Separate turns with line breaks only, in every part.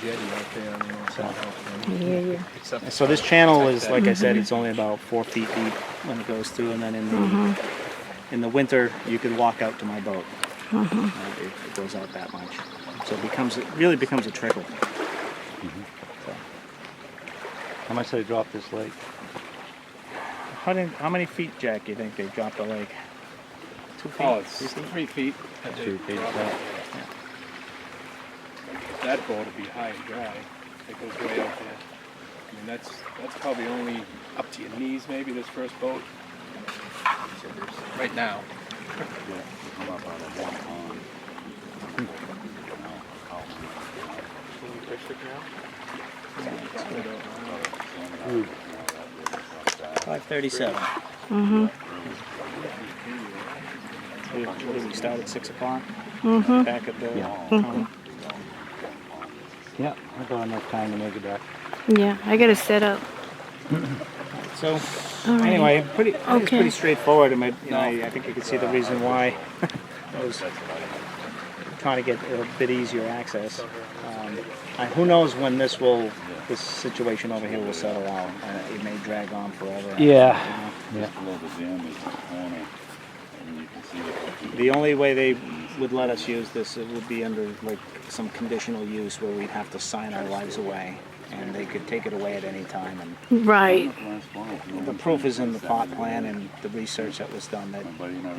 jetty out there on the north side of Hawthorne.
Yeah, yeah.
Except
So this channel
protect
is,
that.
like I
Mm-hmm.
said, it's only about four feet deep when it goes through, and then in the,
Mm-hmm.
in the winter, you could walk out to my boat. Uh, It it goes out that much. So it becomes, it really becomes a trickle.
Mm-hmm. How much they dropped this lake?
How did, how many feet, Jack, you think they dropped the lake? Two feet?
Oh, it's
You think?
three feet. that they
Two feet,
drop
yeah.
out there. That boat will be high and dry. It goes way out there. I mean, that's, that's probably only up to your knees maybe, this first boat. So there's- Right now.
Five thirty-seven.
Mm-hmm.
We, what did we start at six o'clock? Back at the,
Mm-hmm. Yeah.
um,
Yeah, I got enough time to make it back.
Yeah, I gotta set up.
so,
Alrighty.
anyway, pretty, I think it's
Okay.
pretty straightforward, and I, you know, I I think you can see the reason why. I was trying to get a bit easier access. Um, I, who knows when this will, this situation over here will settle out, and it may drag on forever.
Yeah. Yeah.
The only way they would let us use this it would be under like some conditional use where we'd have to sign our lives away, and they could take it away at any time. And
Right.
the proof is in the plot plan and the research that was done that you know,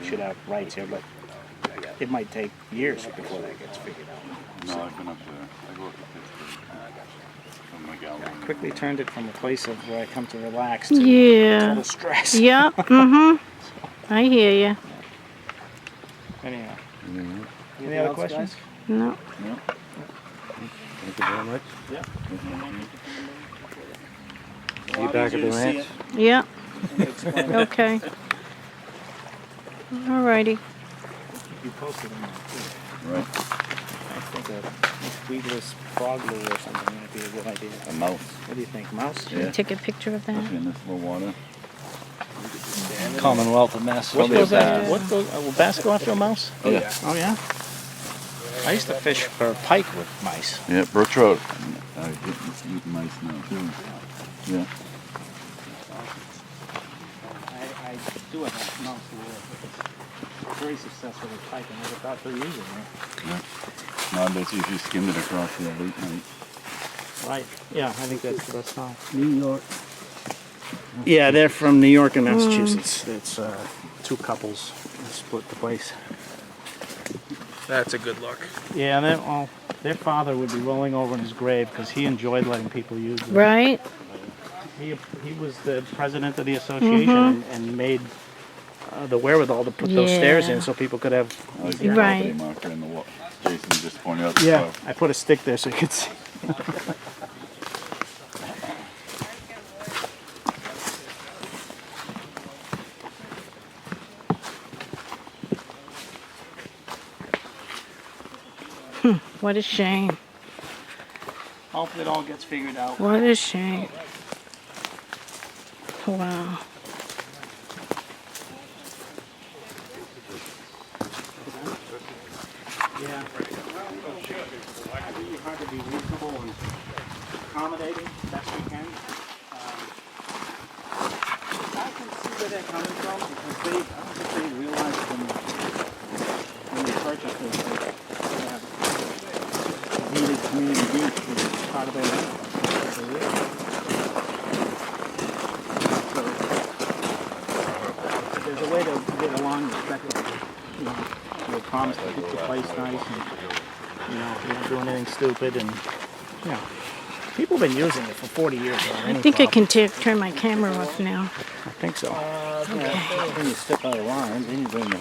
we should have rights here, but it might take years before that gets figured out.
No, I've been up there. I go up to Pittsburgh. From McAllen.
Quickly turned it from a place of where I come to relax to
Yeah.
total stress.
Yep. Mm-hmm. I hear ya.
Anyhow. Any other questions?
No.
Thank you very much.
Yeah.
See you back at the ranch.
Yep.
Explain.
Okay. Alrighty.
You posted them. too.
Right.
I think a weedless frog lure or something might be a good idea.
A mouse.
What do you think, mouse?
Should we take a picture of that?
In this little water.
Commonwealth of
What
Massachusetts.
goes
bass.
after, what goes, uh, will bass go after a mouse?
Oh, yeah.
Oh, yeah? I used to fish for pike with mice.
Yeah, Birch Road. I get this eat mice now, too. Yeah.
I, I do have a mouse lure, but it's very successful with pike, and I never thought to using it.
No, I bet you if you skimmed it across the late night.
Right, yeah, I think that's the best time.
New York.
Yeah, they're from New York and Massachusetts. It's uh, two couples that split the place.
That's a good look.
Yeah, and then, well, their father would be rolling over in his grave because he enjoyed letting people use it.
Right?
He, he was the president of the association and, and made uh, the wherewithal to put those stairs in
Yeah.
so people could have.
I like the
Yeah.
property
Right.
marker in the wa- Jason just pointed out. the stuff.
I put a stick there so you could see.
What a shame.
Hopefully, it all gets figured out.
What a shame. Wow.
Yeah. I think you have to be reasonable and accommodating best we can. Um, I can see where they're coming from because they, I don't think they realized when, when they purchased this, that they have needed community use as part of their land. That's what they did. So, There's a way to get along respectfully. You know, they promise to keep the place nice and you know, you're not doing anything stupid and, you know, people have been using it for 40 years. without
I
any
think I
problem.
can ta- turn my camera off now.
I think so.
Okay.
When you step out of line, then you bring the